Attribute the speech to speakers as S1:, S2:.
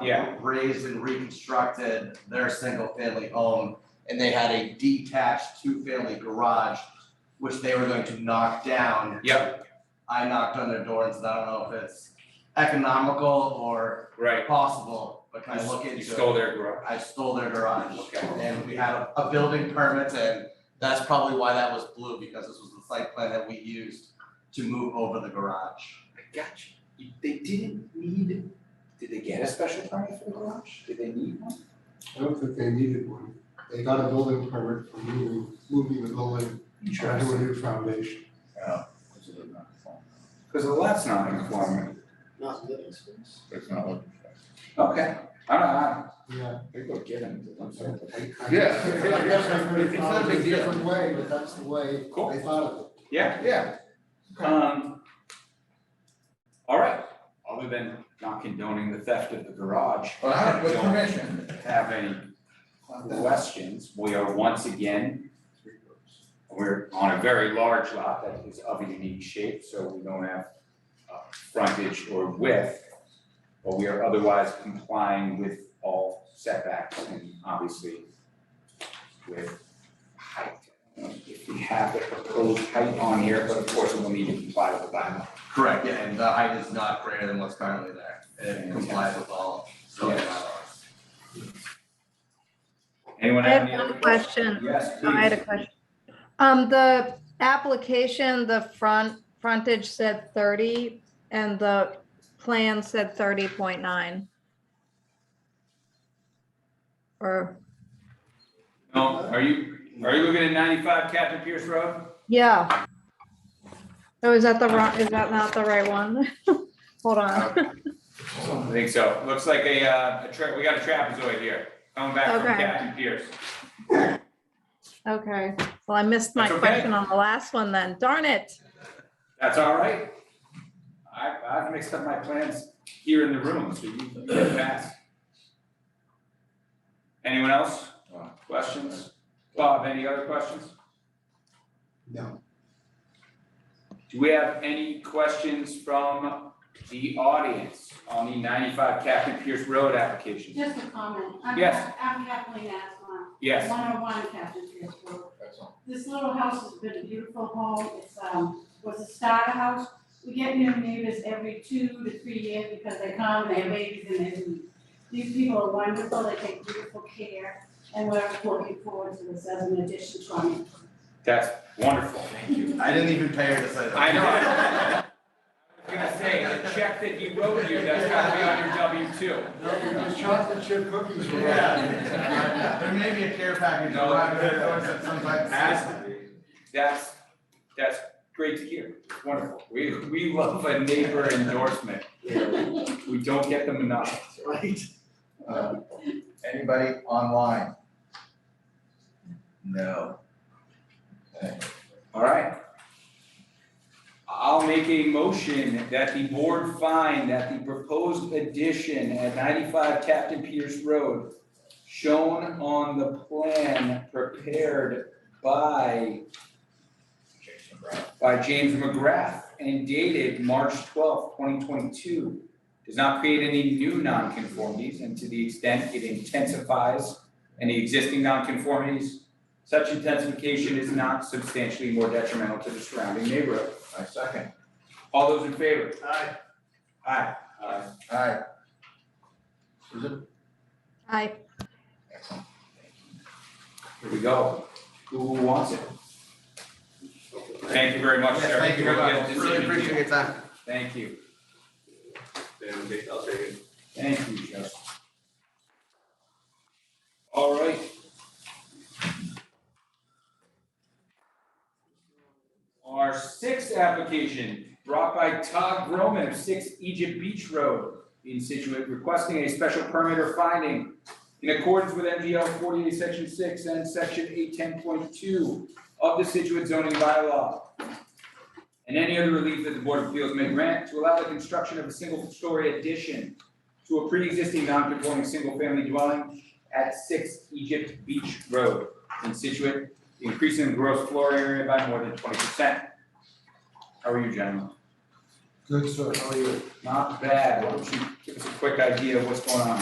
S1: Yeah.
S2: Raised and reconstructed their single family home and they had a detached two family garage, which they were going to knock down.
S1: Yep,
S2: I knocked on their door and said, I don't know if it's economical or
S1: right.
S2: possible, but can I
S1: You
S2: look
S1: s-
S2: into it?
S1: You stole their garage.
S2: I stole their garage.
S1: Okay.
S2: And we had a, a building permit and that's probably why that was blue, because this was the site plan that we used to move over the garage.
S3: I got you. You- They didn't need, did they get a special permit for the garage? Did they need one?
S4: I don't think they needed one. They got a building permit for moving, moving the building onto a new foundation.
S5: Yeah. Which is not conforming.
S3: Cause the lot's not conforming.
S6: Not living space.
S5: It's not looking for
S3: Okay, I don't, I,
S4: Yeah.
S3: they go get him, I'm sorry.
S4: I- I-
S5: Yeah.
S4: I guess I could have
S5: It's not a
S4: thought of it
S5: big
S4: a
S5: deal.
S4: different way, but that's the way
S3: Cool.
S4: they thought of
S3: Yeah,
S5: it. Yeah,
S3: um. All right, other than not condoning the theft of the garage,
S5: well, I have with
S3: Don't
S5: permission.
S3: have any questions, we are once again. We're on a very large lot that is of a unique shape, so we don't have uh frontage or width. But we are otherwise complying with all setbacks and obviously with height. If we have the proposed height on here, but of course we'll need to comply with the bylaw.
S2: Correct, yeah, and the height is not greater than what's currently there, and it complies with all zoning
S3: Yeah.
S2: bylaws.
S3: Anyone
S7: I
S3: have
S7: have
S3: any other
S7: one
S3: questions?
S7: question. Oh,
S3: Yes,
S7: I had a
S3: please.
S7: question. Um, the application, the front, frontage said thirty and the plan said thirty point nine. Or,
S3: No, are you, are you looking at ninety-five Captain Pierce Road?
S7: yeah. Oh, is that the wrong, is that not the right one? Hold on.
S3: I think so. Looks like a, uh, a tra- we got a trapezoid here, coming back from
S7: Okay.
S3: Captain Pierce.
S7: Okay, well, I missed my
S3: That's okay.
S7: question on the last one then. Darn it.
S3: That's all right. I, I've mixed up my plans here in the room, so you can pass. Anyone else? Questions? Bob, any other questions?
S4: it. No.
S3: Do we have any questions from the audience on the ninety-five Captain Pierce Road application?
S8: Just a comment. I'm-
S3: Yes.
S8: I'm Kathleen Aswan,
S3: Yes,
S8: 101 Captain Pierce Road.
S5: That's all.
S8: This little house has been a beautiful home. It's, um, was a starter house. We get new neighbors every two to three years because they come, they have babies and they leave. These people are wonderful. They take beautiful care and we're looking forward to this as an addition to our neighborhood.
S3: that's wonderful, thank you.
S2: I didn't even pay her to say that.
S3: I know. I was gonna say, the check that he wrote you, that's gotta be on your W two.
S4: The chocolate chip cookies were.
S2: Yeah, there may be a care package
S3: No.
S2: arriving at doors at some time.
S3: That's, that's great to hear, wonderful, we, we love a neighbor endorsement, we don't get them enough.
S5: Right. Uh, Anybody online? No. Okay.
S3: All right. I'll make a motion that the board find that the proposed addition at ninety-five Captain Pierce Road shown on the plan prepared by
S5: Jason Brown.
S3: by James McGrath and dated March twelfth, twenty twenty-two. Does not create any new nonconformities and to the extent it intensifies any existing nonconformities, such intensification is not substantially more detrimental to the surrounding neighborhood.
S5: I second.
S3: All those in favor?
S5: Aye.
S3: Aye. Aye.
S5: Aye. Susan?
S7: I,
S5: Excellent.
S3: Here we go. Who wants it? Thank you very much,
S2: Yes,
S3: sir.
S2: thank you very
S3: We'll get
S2: much,
S3: this
S2: really
S3: in.
S2: appreciate your time.
S3: Thank you. Thank you, Justin. All right. Our sixth application brought by Todd Groman of Six Egypt Beach Road in Situate, requesting a special permit or finding in accordance with MGL forty-eight, section six, and section eight ten point two of the Situate zoning bylaw and any other relief that the Board of Appeals may grant to allow the construction of a single-story addition to a pre-existing non-conforming single-family dwelling at six Egypt Beach Road in Situate, increasing the gross floor area by more than twenty percent. How are you, gentlemen?
S4: Good, sir. How are you?
S3: Not bad, why don't you give us a quick idea of what's going on